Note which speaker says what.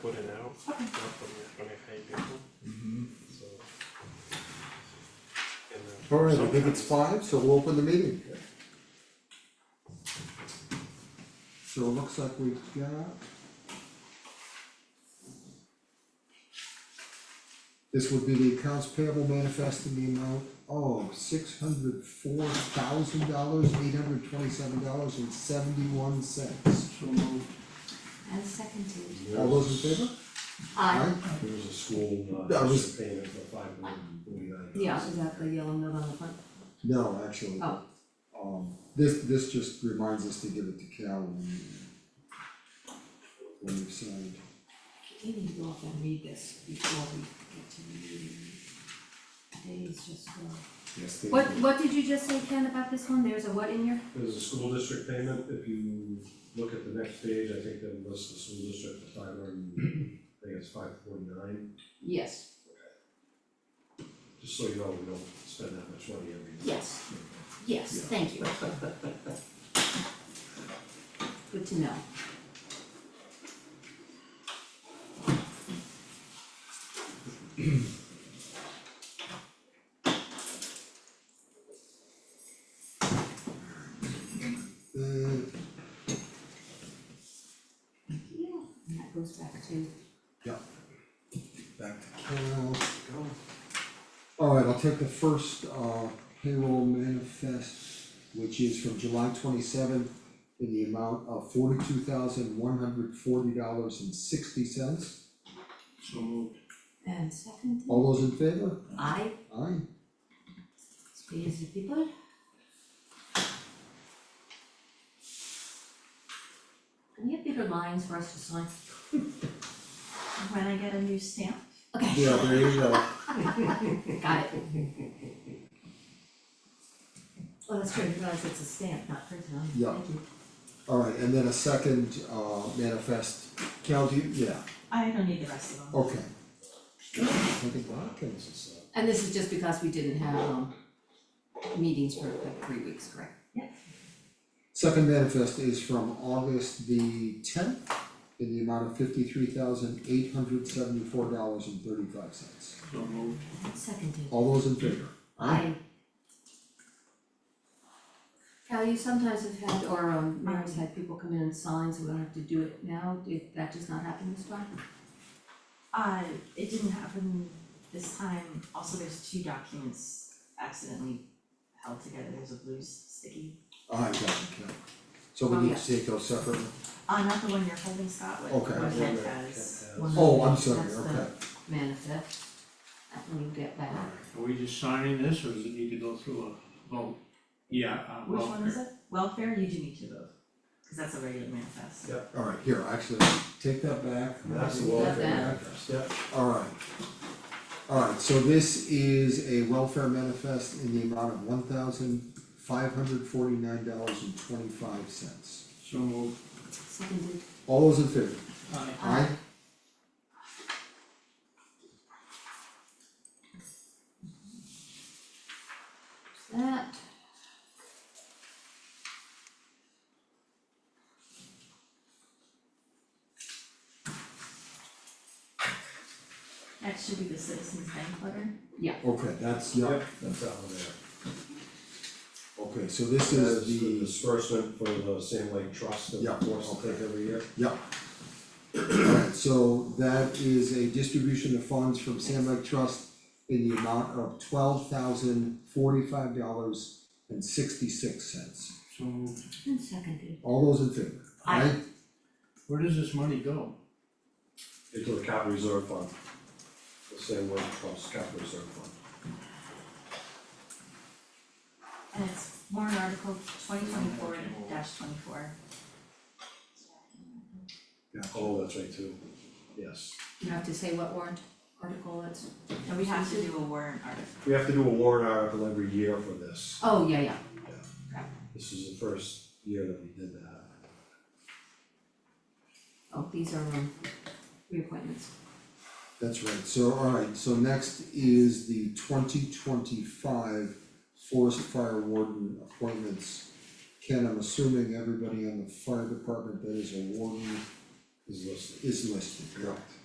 Speaker 1: put it out, not that we're gonna pay people, so. And then
Speaker 2: All right, I think it's
Speaker 1: sometimes-
Speaker 2: five, so we'll open the meeting. So it looks like we've got. This would be the accounts payable manifest in the amount of six hundred four thousand dollars, eight hundred twenty-seven dollars and seventy-one cents.
Speaker 3: And seconded.
Speaker 2: All those in favor?
Speaker 3: I,
Speaker 4: There was a school, uh,
Speaker 2: That was-
Speaker 4: district payment for five hundred and forty-nine
Speaker 3: yeah, is that the yellow note on the front?
Speaker 2: No, actually.
Speaker 3: Oh.
Speaker 2: Um, this, this just reminds us to give it to Cal when. When we've signed.
Speaker 3: We need to go up and read this before we get to the meeting. Today's just, uh,
Speaker 2: Yes, they
Speaker 5: What, what did you just say, Ken, about this one? There's a what in your,
Speaker 4: There's a school district payment, if you look at the next page, I think that lists the school district for five hundred, and- I think it's five forty-nine,
Speaker 3: yes,
Speaker 4: just so you know, we don't spend that much money every year.
Speaker 3: yes, yes,
Speaker 2: Yeah.
Speaker 3: thank you. Good to know.
Speaker 2: Uh,
Speaker 3: Yeah. And that goes back to,
Speaker 2: back to Cal. Alright, I'll take the first uh payroll manifest, which is from July twenty-seventh in the amount of forty-two thousand one hundred forty dollars and sixty cents.
Speaker 3: and seconded,
Speaker 2: All those in favor?
Speaker 3: I,
Speaker 2: Aye.
Speaker 3: speak as the people. Can you have bigger lines for us to sign?
Speaker 5: when I get a new stamp?
Speaker 3: Okay,
Speaker 2: Yeah, there you go.
Speaker 3: got it. Oh, that's true, I realize it's a stamp, not printed on,
Speaker 2: Yeah.
Speaker 3: thank you.
Speaker 2: Alright, and then a second uh manifest, Cal, do you, yeah,
Speaker 5: I don't need the rest of them.
Speaker 2: okay. I think Watkins is
Speaker 4: It's, uh,
Speaker 3: And this is just because we didn't have um meetings for like three weeks, correct?
Speaker 2: Second manifest is from August the tenth in the amount of fifty-three thousand eight hundred seventy-four dollars and thirty-five cents.
Speaker 3: Seconded.
Speaker 2: All those in favor?
Speaker 3: I. Cal, you sometimes have had, or um Mary's had people come in and sign, so we don't have to do it now, did that just not happen this time?
Speaker 5: Uh, it didn't happen this time, also there's two documents accidentally held together, there's a blue sticky.
Speaker 2: I got it, Cal. So we
Speaker 3: Oh,
Speaker 2: need
Speaker 3: yeah.
Speaker 2: to take those separately?
Speaker 5: Uh, not the one you're holding, Scott, what,
Speaker 2: Okay.
Speaker 5: what
Speaker 4: one
Speaker 5: Ken
Speaker 4: that
Speaker 5: has.
Speaker 4: Ken
Speaker 3: One
Speaker 4: has.
Speaker 2: Oh, I'm sorry,
Speaker 3: That's the-
Speaker 2: okay.
Speaker 3: Manifest, that one you get back.
Speaker 6: Are we just signing this or does it need to go through a vote? Yeah, uh,
Speaker 5: Which one is
Speaker 6: welfare.
Speaker 5: it? Welfare, you do need to vote, cause that's a regular manifest.
Speaker 4: Yeah.
Speaker 2: Alright, here, actually, take that back.
Speaker 4: And That's the
Speaker 2: Take
Speaker 3: Got
Speaker 4: welfare
Speaker 3: that?
Speaker 4: address, yeah,
Speaker 2: Alright. Alright, so this is a welfare manifest in the amount of one thousand five hundred forty-nine dollars and twenty-five cents.
Speaker 6: So moved.
Speaker 3: Seconded.
Speaker 2: All those in favor?
Speaker 6: Aye.
Speaker 2: Aye.
Speaker 3: That.
Speaker 5: That should be the citizens bank letter.
Speaker 2: Okay, that's, yeah,
Speaker 4: yep, that's that one there.
Speaker 2: okay, so this
Speaker 4: This
Speaker 2: is
Speaker 4: is the
Speaker 2: the,
Speaker 4: disbursement for the Sand Lake Trust that
Speaker 2: Yeah,
Speaker 4: we're forced to
Speaker 2: okay.
Speaker 4: take every year.
Speaker 2: yeah. Alright, so that is a distribution of funds from Sam Lake Trust in the amount of twelve thousand forty-five dollars and sixty-six cents.
Speaker 6: So moved.
Speaker 3: And seconded.
Speaker 2: All those in favor?
Speaker 3: Aye.
Speaker 6: Where does this money go?
Speaker 4: Into the capital reserve fund, the Sand Lake Trust capital reserve fund.
Speaker 5: And it's warrant article twenty twenty-four dash twenty-four.
Speaker 4: Oh, that's right too, yes.
Speaker 3: You have to say what warrant article it's,
Speaker 5: And we have to do a warrant article.
Speaker 4: We have to do a warrant article every year for this.
Speaker 3: oh, yeah, yeah,
Speaker 4: This is the first year that we did that.
Speaker 3: oh, these are um reappointments.
Speaker 2: That's right, so alright, so next is the twenty twenty-five Forest Fire Warden appointments. Ken, I'm assuming everybody on the fire department that is a warden
Speaker 4: is listed.
Speaker 2: is listed, correct?